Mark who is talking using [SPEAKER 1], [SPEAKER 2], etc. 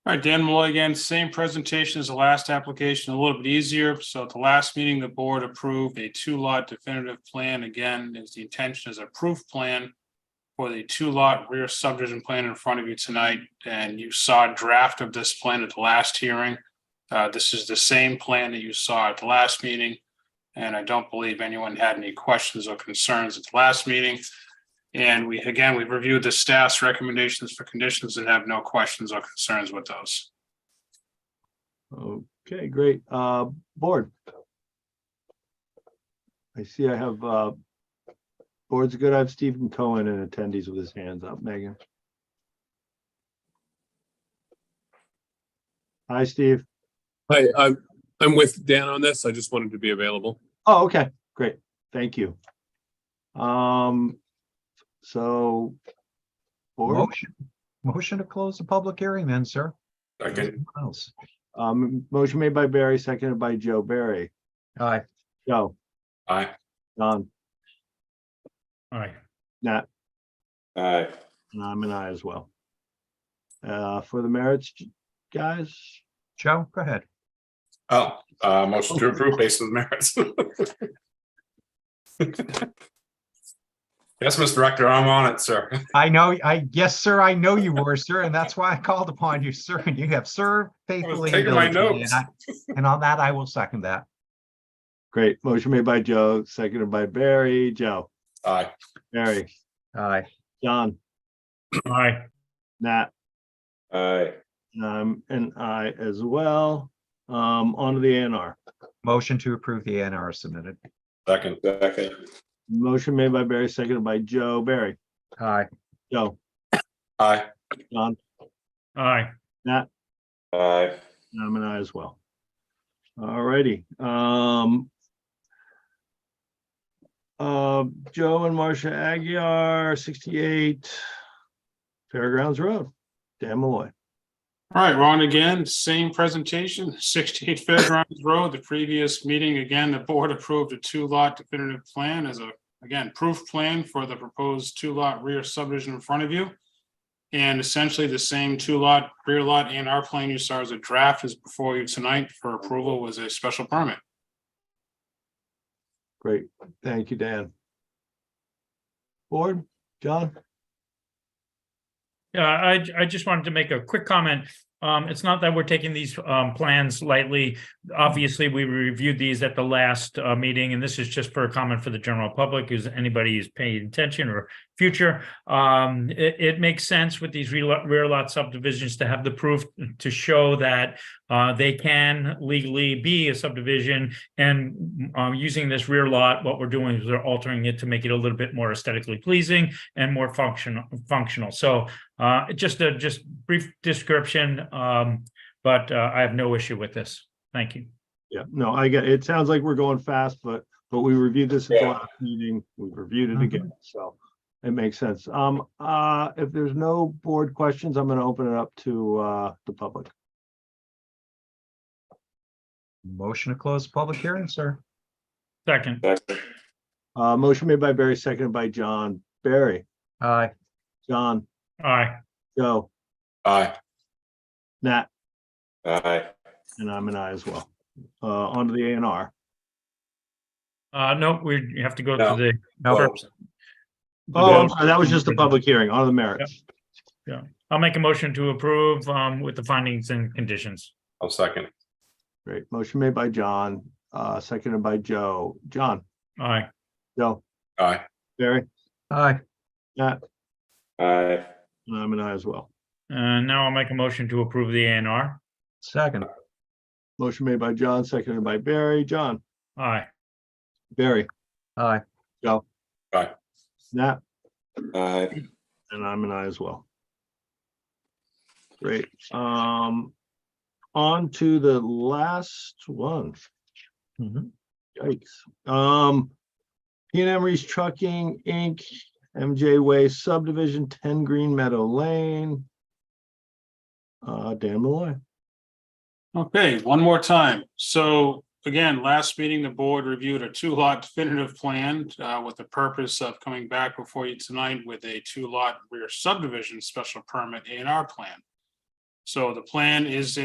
[SPEAKER 1] All right, Dan Malloy again, same presentation as the last application, a little bit easier. So at the last meeting, the board approved a two lot definitive plan. Again, is the intention is a proof plan for the two lot rear subdivision plan in front of you tonight, and you saw a draft of this plan at the last hearing. Uh, this is the same plan that you saw at the last meeting, and I don't believe anyone had any questions or concerns at the last meeting. And we, again, we've reviewed the staff's recommendations for conditions and have no questions or concerns with those.
[SPEAKER 2] Okay, great. Uh, board. I see I have, uh, board's good. I have Stephen Cohen and attendees with his hands up. Megan. Hi, Steve.
[SPEAKER 3] Hi, I'm, I'm with Dan on this. I just wanted to be available.
[SPEAKER 2] Oh, okay, great. Thank you. Um, so. Board,
[SPEAKER 4] Motion, motion to close the public hearing then, sir.
[SPEAKER 5] Second,
[SPEAKER 4] What else?
[SPEAKER 2] um, motion made by Barry, seconded by Joe Barry.
[SPEAKER 4] Aye,
[SPEAKER 2] Joe,
[SPEAKER 5] aye.
[SPEAKER 2] Don,
[SPEAKER 6] Aye.
[SPEAKER 2] Nat,
[SPEAKER 5] Aye.
[SPEAKER 2] and I'm an I as well. Uh, for the merits, guys,
[SPEAKER 4] Joe, go ahead.
[SPEAKER 5] Oh, uh, motion to approve based on the merits. Yes, Mr. Director, I'm on it, sir.
[SPEAKER 4] I know, I, yes, sir, I know you were, sir, and that's why I called upon you, sir, and you have served faithfully. and
[SPEAKER 5] taking my
[SPEAKER 4] diligently,
[SPEAKER 5] notes.
[SPEAKER 4] and I- And on that, I will second that.
[SPEAKER 2] great. Motion made by Joe, seconded by Barry, Joe,
[SPEAKER 5] Aye.
[SPEAKER 2] Barry,
[SPEAKER 4] Aye.
[SPEAKER 2] John,
[SPEAKER 6] Aye.
[SPEAKER 2] Nat,
[SPEAKER 5] Aye.
[SPEAKER 2] and I'm an I as well. Um, onto the ANR.
[SPEAKER 4] Motion to approve the NR submitted.
[SPEAKER 5] Second. Second.
[SPEAKER 2] Motion made by Barry, seconded by Joe, Barry,
[SPEAKER 4] Aye.
[SPEAKER 2] Joe,
[SPEAKER 5] Aye.
[SPEAKER 2] John,
[SPEAKER 6] Aye.
[SPEAKER 5] Aye.
[SPEAKER 2] and I'm an I as well. Alrighty, um. Uh, Joe and Marcia Aguirre, sixty-eight Fairgrounds Road, Dan Malloy.
[SPEAKER 1] All right, we're on again, same presentation, sixty-eight Fairgrounds Road, the previous meeting, again, the board approved a two-lot definitive plan as a, again, proof plan for the proposed two-lot rear subdivision in front of you. And essentially the same two-lot, rear lot and our plan you saw as a draft is before you tonight for approval was a special permit.
[SPEAKER 2] Great, thank you, Dan. Board, John,
[SPEAKER 6] Yeah, Uh, I, I just wanted to make a quick comment. Um, it's not that we're taking these, um, plans lightly. Obviously, we reviewed these at the last, uh, meeting, and this is just for a comment for the general public, is anybody who's paying attention or future. Um, it, it makes sense with these rear lot, rear lot subdivisions to have the proof to show that, uh, they can legally be a subdivision. And, um, using this rear lot, what we're doing is we're altering it to make it a little bit more aesthetically pleasing and more functional, functional. So, uh, just a, just brief description, um, but, uh, I have no issue with this. Thank you.
[SPEAKER 2] yeah, no, I get, it sounds like we're going fast, but, but we reviewed this at the last meeting, we've reviewed it
[SPEAKER 4] Mhm.
[SPEAKER 2] again, so. It makes sense. Um, uh, if there's no board questions, I'm gonna open it up to, uh, the public.
[SPEAKER 4] Motion to close the public hearing, sir.
[SPEAKER 6] Second,
[SPEAKER 2] Uh, motion made by Barry, seconded by John. Barry,
[SPEAKER 4] Aye.
[SPEAKER 2] John,
[SPEAKER 6] aye,
[SPEAKER 2] Joe,
[SPEAKER 5] Aye.
[SPEAKER 2] Nat,
[SPEAKER 5] Aye.
[SPEAKER 2] and I'm an I as well. Uh, onto the A and R.
[SPEAKER 6] uh, no, we you have to go
[SPEAKER 5] No.
[SPEAKER 6] to the.
[SPEAKER 4] No,
[SPEAKER 2] Oh, I'm sorry, that was just the public hearing, onto the merits.
[SPEAKER 6] I'll make a motion to approve, um, with the findings and conditions.
[SPEAKER 5] I'll second.
[SPEAKER 2] Great. Motion made by John, uh, seconded by Joe. John,
[SPEAKER 6] Aye,
[SPEAKER 2] Joe,
[SPEAKER 5] Aye.
[SPEAKER 2] Barry,
[SPEAKER 4] aye.
[SPEAKER 5] Aye.
[SPEAKER 2] and I'm an I as well.
[SPEAKER 6] and now I'll make a motion to approve the A and R.
[SPEAKER 4] Second,
[SPEAKER 2] Motion made by John, seconded by Barry. John,
[SPEAKER 6] Aye,
[SPEAKER 2] Barry,
[SPEAKER 4] aye.
[SPEAKER 2] Nat,
[SPEAKER 5] Aye.
[SPEAKER 2] and I'm an I as well. Great. Um, on to the last one.
[SPEAKER 4] Mhm.
[SPEAKER 2] Yikes. Um, P and M Reese Trucking, Inc., MJ Way subdivision, ten Green Meadow Lane. Uh, Dan Malloy.
[SPEAKER 1] Okay, one more time. So again, last meeting, the board reviewed a two-lot definitive plan uh, with the purpose of coming back before you tonight with a two-lot rear subdivision special permit A and R plan. So the plan is